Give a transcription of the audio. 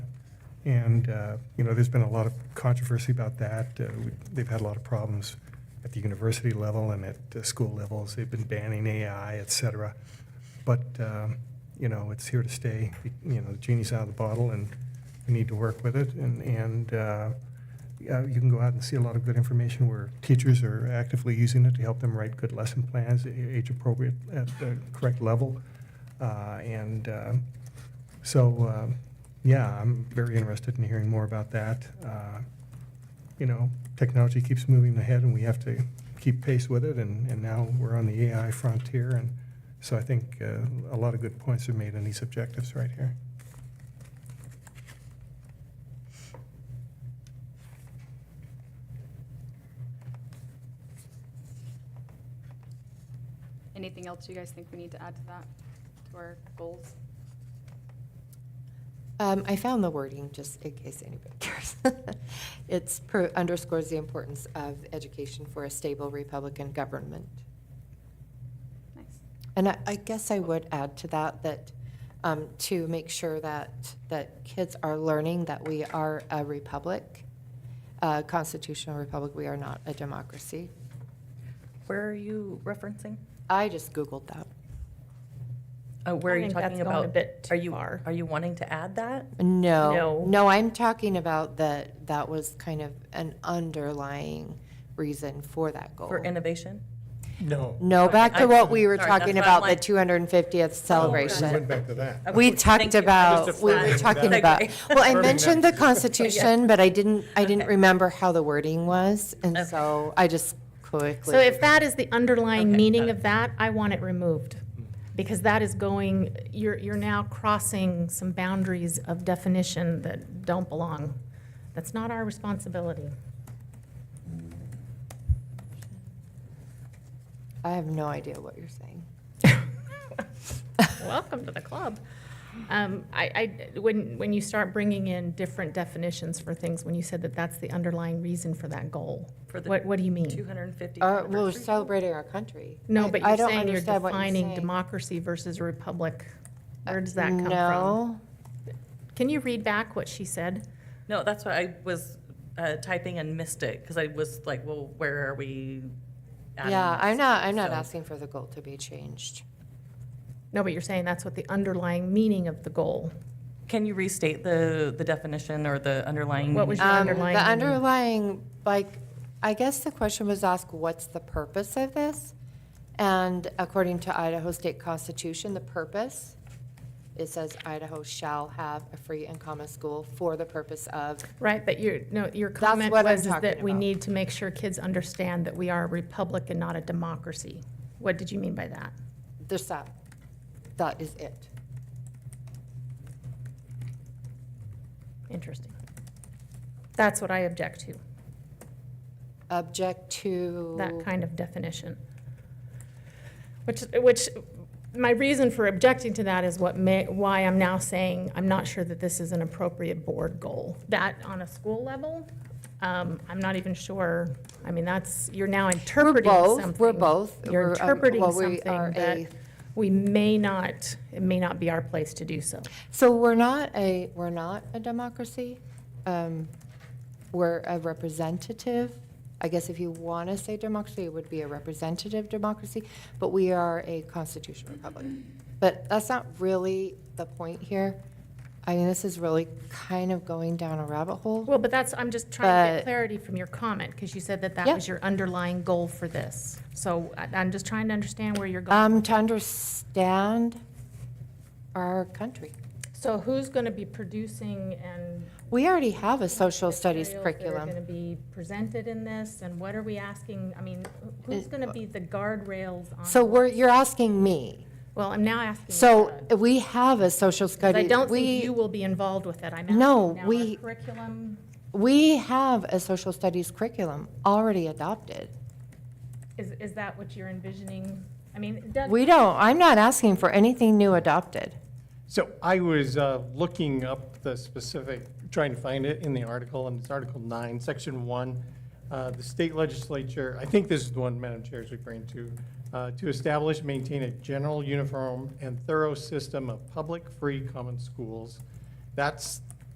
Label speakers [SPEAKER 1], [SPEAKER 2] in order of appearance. [SPEAKER 1] And, uh, you know, there's been a lot of controversy about that. Uh, we- They've had a lot of problems at the university level and at uh, school levels. They've been banning AI, et cetera. But, um, you know, it's here to stay. You know, the genie's out of the bottle and we need to work with it. And, and uh, yeah, you can go out and see a lot of good information where teachers are actively using it to help them write good lesson plans, a- age appropriate, at the correct level. Uh, And uh, so, um, yeah, I'm very interested in hearing more about that. Uh, You know, technology keeps moving ahead and we have to keep pace with it. And, and now we're on the AI frontier. And so I think uh, a lot of good points are made in these objectives right here.
[SPEAKER 2] Anything else you guys think we need to add to that, to our goals?
[SPEAKER 3] Um, I found the wording, just in case anybody cares. It's pro- underscores the importance of education for a stable Republican government.
[SPEAKER 2] Nice.
[SPEAKER 3] And I, I guess I would add to that, that, um, to make sure that, that kids are learning that we are a republic, a constitutional republic, we are not a democracy.
[SPEAKER 4] Where are you referencing?
[SPEAKER 3] I just Googled that.
[SPEAKER 4] Uh, Where
[SPEAKER 5] I
[SPEAKER 4] are you
[SPEAKER 5] think that's
[SPEAKER 4] talking
[SPEAKER 5] going a
[SPEAKER 4] about?
[SPEAKER 5] bit too
[SPEAKER 4] Are you,
[SPEAKER 5] far.
[SPEAKER 4] are you wanting to add that?
[SPEAKER 3] No.
[SPEAKER 4] No.
[SPEAKER 3] I'm talking about that, that was kind of an underlying reason for that goal.
[SPEAKER 5] Oh.
[SPEAKER 4] For innovation?
[SPEAKER 1] No.
[SPEAKER 3] No,
[SPEAKER 4] Okay,
[SPEAKER 3] back to
[SPEAKER 4] I-
[SPEAKER 3] what we were
[SPEAKER 4] sorry, that's
[SPEAKER 3] talking
[SPEAKER 4] what
[SPEAKER 3] about,
[SPEAKER 4] I'm
[SPEAKER 3] the
[SPEAKER 4] like-
[SPEAKER 3] 250th celebration.
[SPEAKER 1] back to that.
[SPEAKER 3] We
[SPEAKER 4] Okay, thank
[SPEAKER 3] talked
[SPEAKER 4] you.
[SPEAKER 3] about,
[SPEAKER 4] Just a
[SPEAKER 3] we were
[SPEAKER 4] flag.
[SPEAKER 3] talking
[SPEAKER 4] Segue.
[SPEAKER 3] about, well, I
[SPEAKER 1] Perfect.
[SPEAKER 3] mentioned the Constitution, but I didn't, I didn't
[SPEAKER 4] Okay.
[SPEAKER 3] remember how the wording was, and
[SPEAKER 4] Okay.
[SPEAKER 3] so I just quickly.
[SPEAKER 5] So if that is the underlying
[SPEAKER 4] Okay, got
[SPEAKER 5] meaning
[SPEAKER 4] it.
[SPEAKER 5] of that, I want it removed. Because that is going, you're, you're now crossing some boundaries of definition that don't belong. That's not our responsibility.
[SPEAKER 3] I have no idea what you're saying.
[SPEAKER 5] Welcome to the club. Um, I, I, when, when you start bringing in different definitions for things, when you said that that's the underlying reason for that goal,
[SPEAKER 4] For the
[SPEAKER 5] what, what do you mean?
[SPEAKER 4] 250?
[SPEAKER 3] Uh, We're celebrating our country.
[SPEAKER 5] No,
[SPEAKER 3] I-
[SPEAKER 5] but
[SPEAKER 3] I
[SPEAKER 5] you're
[SPEAKER 3] don't
[SPEAKER 5] saying you're
[SPEAKER 3] understand what
[SPEAKER 5] defining
[SPEAKER 3] saying. Uh,
[SPEAKER 5] democracy versus republic. Where does that come from?
[SPEAKER 3] No,
[SPEAKER 5] Can you read back what she said?
[SPEAKER 4] No, that's what I was uh, typing and missed it, because I was like, well, where are we adding?
[SPEAKER 3] yeah, I'm
[SPEAKER 4] this?
[SPEAKER 3] not, I'm not
[SPEAKER 4] So-
[SPEAKER 3] asking for the goal to be changed.
[SPEAKER 5] No, but you're saying that's what the underlying meaning of the goal.
[SPEAKER 4] Can you restate the, the definition or the underlying?
[SPEAKER 5] What was your
[SPEAKER 3] Um,
[SPEAKER 5] underlying
[SPEAKER 3] The
[SPEAKER 5] meaning?
[SPEAKER 3] underlying, like, I guess the question was asked, what's the purpose of this? And according to Idaho State Constitution, the purpose, it says Idaho shall have a free and common school for the purpose of,
[SPEAKER 5] Right, but your, no, your comment
[SPEAKER 3] what I'm
[SPEAKER 5] was is that
[SPEAKER 3] talking
[SPEAKER 5] we
[SPEAKER 3] about.
[SPEAKER 5] need to make sure kids understand that we are a republic and not a democracy. What did you mean by that?
[SPEAKER 3] there's that, that is it.
[SPEAKER 5] Interesting. That's what I object to,
[SPEAKER 3] Object to.
[SPEAKER 5] that kind of definition. Which, which, my reason for objecting to that is what may, why I'm now saying I'm not sure that this is an appropriate board goal. That on a school level, um, I'm not even sure, I mean, that's, you're now interpreting
[SPEAKER 3] both-
[SPEAKER 5] something.
[SPEAKER 3] we're both.
[SPEAKER 5] You're
[SPEAKER 3] We're, um,
[SPEAKER 5] interpreting
[SPEAKER 3] well, we
[SPEAKER 5] something
[SPEAKER 3] are a-
[SPEAKER 5] that we may not, it may not be our place to do so.
[SPEAKER 3] So we're not a, we're not a democracy. Um, We're a representative, I guess if you want to say democracy, it would be a representative democracy, but we are a constitutional republic. But that's not really the point here. I mean, this is really kind of going down a rabbit hole.
[SPEAKER 5] Well, but that's, I'm just trying to
[SPEAKER 3] But-
[SPEAKER 5] get clarity from your comment, because you said that that
[SPEAKER 3] Yeah.
[SPEAKER 5] was your underlying goal for this. So I- I'm just trying to understand where you're going.
[SPEAKER 3] Um, To understand our country.
[SPEAKER 5] So who's going to be producing and?
[SPEAKER 3] We already have a social studies
[SPEAKER 5] materials That are
[SPEAKER 3] curriculum.
[SPEAKER 5] going to be presented in this, and what are we asking? I mean, who's going to be the guardrails on?
[SPEAKER 3] So we're, you're asking me.
[SPEAKER 5] Well, I'm now asking.
[SPEAKER 3] So
[SPEAKER 5] Todd,
[SPEAKER 3] we have a social
[SPEAKER 5] 'cause
[SPEAKER 3] studies.
[SPEAKER 5] I don't think
[SPEAKER 3] we-
[SPEAKER 5] you will be involved with it. I'm asking
[SPEAKER 3] No,
[SPEAKER 5] now
[SPEAKER 3] we-
[SPEAKER 5] our curriculum.
[SPEAKER 3] We have a social studies curriculum already adopted.
[SPEAKER 5] Is, is that what you're envisioning? I mean, Doug.
[SPEAKER 3] We don't, I'm not asking for anything new adopted.
[SPEAKER 6] So I was uh, looking up the specific, trying to find it in the article, and it's Article 9, Section 1. Uh, The state legislature, I think this is the one Madam Chair is referring to, uh, to establish, maintain a general, uniform, and thorough system of public, free, common schools. That's